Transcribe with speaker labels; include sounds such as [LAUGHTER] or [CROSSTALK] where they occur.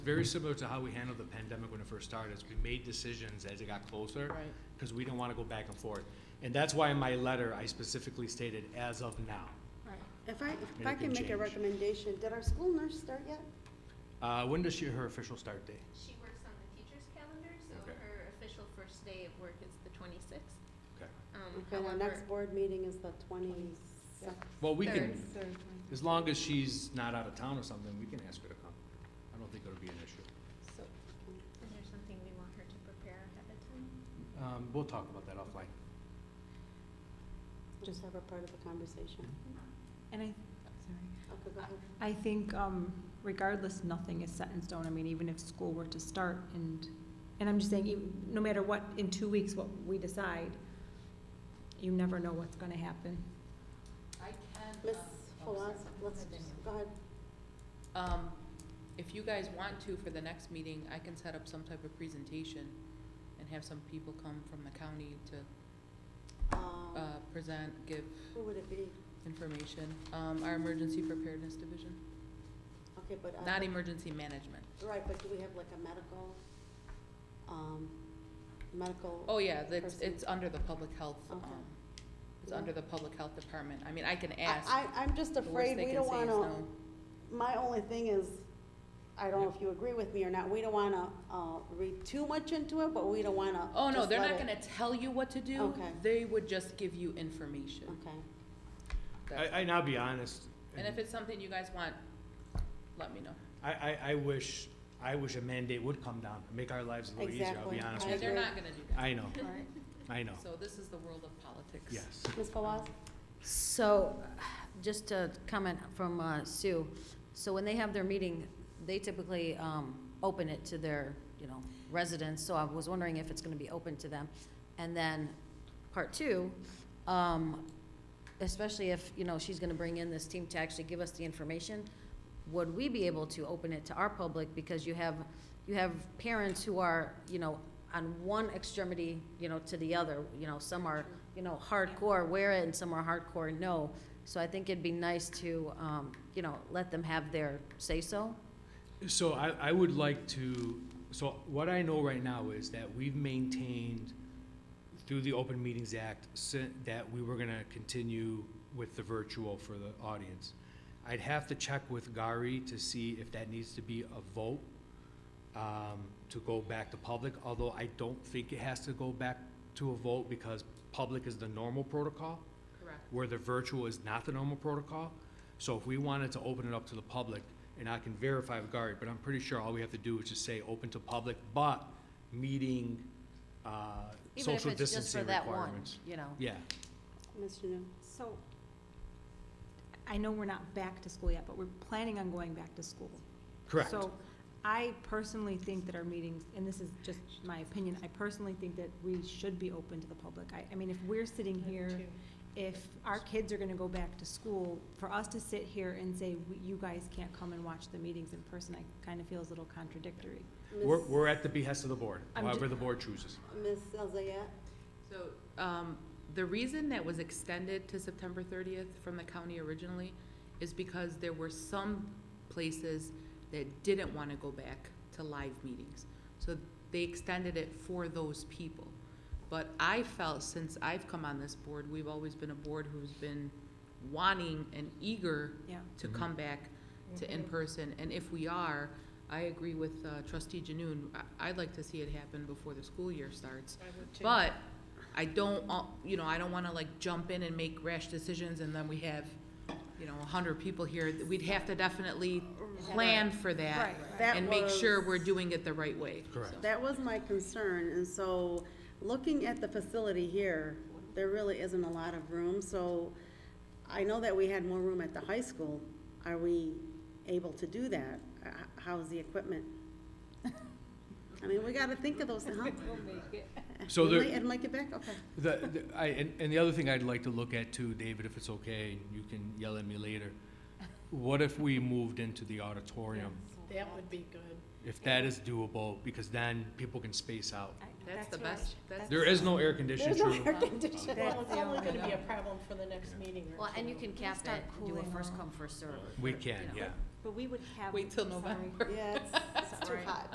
Speaker 1: Very similar to how we handled the pandemic when it first started, is we made decisions as it got closer.
Speaker 2: Right.
Speaker 1: Because we didn't want to go back and forth. And that's why in my letter, I specifically stated as of now.
Speaker 3: If I, if
Speaker 1: And
Speaker 3: I
Speaker 1: it can
Speaker 3: can make a
Speaker 1: change.
Speaker 3: recommendation, did our school nurse start yet?
Speaker 1: Uh, when does she, her official start date?
Speaker 4: She works on the teacher's calendar, so
Speaker 1: Okay.
Speaker 4: her official first day of work is the twenty-sixth.
Speaker 1: Okay.
Speaker 4: Um,
Speaker 3: Okay, the
Speaker 4: however,
Speaker 3: next board meeting is the twenty-sixth.
Speaker 1: Well, we can,
Speaker 4: Third.
Speaker 1: as long as she's not out of town or something, we can ask her to come. I don't think it'll be an issue.
Speaker 4: so, is there something we want her to prepare ahead of time?
Speaker 1: Um, we'll talk about that offline.
Speaker 3: Just have her part of the conversation.
Speaker 2: And I, sorry.
Speaker 3: Okay, go ahead.
Speaker 2: I think um, regardless, nothing is set in stone. I mean, even if school were to start and, and I'm just saying, even- no matter what, in two weeks, what we decide, you never know what's gonna happen.
Speaker 5: I can.
Speaker 3: Ms.
Speaker 5: um, oh, sorry.
Speaker 3: Halas, let's, just- go ahead.
Speaker 5: Um, if you guys want to, for the next meeting, I can set up some type of presentation and have some people come from the county to,
Speaker 3: Um,
Speaker 5: uh, present, give
Speaker 3: Who would it be?
Speaker 5: information. Um, our emergency preparedness division,
Speaker 3: Okay, but, uh,
Speaker 5: not emergency management.
Speaker 3: right, but do we have like a medical, um, medical?
Speaker 5: Oh, yeah, that's,
Speaker 3: Person.
Speaker 5: it's under the public health, um,
Speaker 3: Okay.
Speaker 5: it's
Speaker 3: Yeah.
Speaker 5: under the public health department. I mean, I can ask.
Speaker 3: I, I, I'm just
Speaker 5: The worst
Speaker 3: afraid
Speaker 5: they
Speaker 3: we
Speaker 5: can
Speaker 3: don't
Speaker 5: say is
Speaker 3: wanna,
Speaker 5: no.
Speaker 3: my only thing is, I don't know if you agree with me or not, we don't wanna, uh, read too much into it, but we don't wanna.
Speaker 5: Oh, no,
Speaker 3: just
Speaker 5: they're
Speaker 3: let
Speaker 5: not
Speaker 3: it-
Speaker 5: gonna tell you what to do.
Speaker 3: Okay.
Speaker 5: They would just give you information.
Speaker 3: Okay,
Speaker 5: That's-
Speaker 1: I, and I'll be honest.
Speaker 5: And if it's something you guys want, let me know.
Speaker 1: I, I, I wish, I wish a mandate would come down, make our lives a little easier, I'll
Speaker 3: Exactly.
Speaker 1: be honest
Speaker 3: I
Speaker 5: Yeah,
Speaker 1: with you.
Speaker 5: they're
Speaker 3: agree.
Speaker 5: not gonna do that.
Speaker 1: I know,
Speaker 2: All right.
Speaker 1: I know,
Speaker 5: So this is the world of politics.
Speaker 1: yes.
Speaker 3: Ms. Fawaz?
Speaker 6: So, just a comment from uh, Sue. So when they have their meeting, they typically um, open it to their, you know, residents, so I was wondering if it's gonna be open to them. And then, part two, um, especially if, you know, she's gonna bring in this team to actually give us the information, would we be able to open it to our public? Because you have, you have parents who are, you know, on one extremity, you know, to the other, you know, some are, you know, hardcore wear it and some are hardcore no. So I think it'd be nice to, um, you know, let them have their say-so.
Speaker 1: So I, I would like to, so what I know right now is that we've maintained through the Open Meetings Act si- that we were gonna continue with the virtual for the audience. I'd have to check with Gary to see if that needs to be a vote, um, to go back to public, although I don't think it has to go back to a vote because public is the normal protocol
Speaker 5: Correct.
Speaker 1: where the virtual is not the normal protocol. So if we wanted to open it up to the public, and I can verify with Gary, but I'm pretty sure all we have to do is just say, open to public, but meeting, uh,
Speaker 6: Even if
Speaker 1: social
Speaker 6: it's just for
Speaker 1: distancing
Speaker 6: that one,
Speaker 1: requirements.
Speaker 6: you know.
Speaker 1: Yeah,
Speaker 3: Ms. Janu?
Speaker 2: So, I know we're not back to school yet, but we're planning on going back to school.
Speaker 1: correct.
Speaker 2: So I personally think that our meetings, and this is just my opinion, I personally think that we should be open to the public. I, I mean, if we're sitting here, if our kids are gonna go back to school, for us to sit here and say, "We- you guys can't come and watch the meetings in person, I kind of feels a little contradictory.
Speaker 1: We're, we're at the behest of the board,
Speaker 2: I'm ju-
Speaker 1: however the board chooses.
Speaker 3: Ms. Elzayat?
Speaker 5: So, um, the reason that was extended to September thirtieth from the county originally is because there were some places that didn't wanna go back to live meetings. So they extended it for those people. But I felt since I've come on this board, we've always been a board who's been wanting and eager
Speaker 2: Yeah.
Speaker 5: to
Speaker 1: Mhm.
Speaker 5: come back
Speaker 7: Mm-hmm.
Speaker 5: to in-person, and if we are, I agree with uh, trustee Janoon, I, I'd like to see it happen before the school year starts. But I don't, al- you know, I don't wanna like jump in and make rash decisions and then we have, you know, a hundred people here, we'd have to definitely plan for that
Speaker 3: That
Speaker 5: and make sure
Speaker 3: was-
Speaker 5: we're doing it the right way.
Speaker 1: Correct.
Speaker 5: So-
Speaker 3: That was my concern, and so, looking at the facility here, there really isn't a lot of room, so I know that we had more room at the high school. Are we able to do that? Uh, h- How's the equipment? [LAUGHS] I mean, we gotta think of those, huh?
Speaker 1: So
Speaker 3: We
Speaker 1: there-
Speaker 3: might- And make it back, okay.
Speaker 1: The, the- I, and, and the other thing I'd like to look at too, David, if it's okay, and you can yell at me later. What if we moved into the auditorium?
Speaker 7: That would be good.
Speaker 1: If that is doable, because then people can space out.
Speaker 5: That's the best, that's.
Speaker 1: There is no air conditioning.
Speaker 3: There's no
Speaker 1: true.
Speaker 3: air conditioning.
Speaker 7: Well, it's only gonna be a problem for the next meeting or
Speaker 6: Well, and you
Speaker 7: two.
Speaker 6: can cap
Speaker 2: start
Speaker 6: it, do
Speaker 2: cooling
Speaker 6: a first
Speaker 2: off.
Speaker 6: come, first serve.
Speaker 1: We
Speaker 6: you
Speaker 1: can,
Speaker 6: know.
Speaker 1: yeah.
Speaker 2: But we would have.
Speaker 5: Wait till
Speaker 2: sorry.
Speaker 5: November.
Speaker 3: Yeah, it's- it's
Speaker 2: Pressure
Speaker 8: Right.
Speaker 2: pot.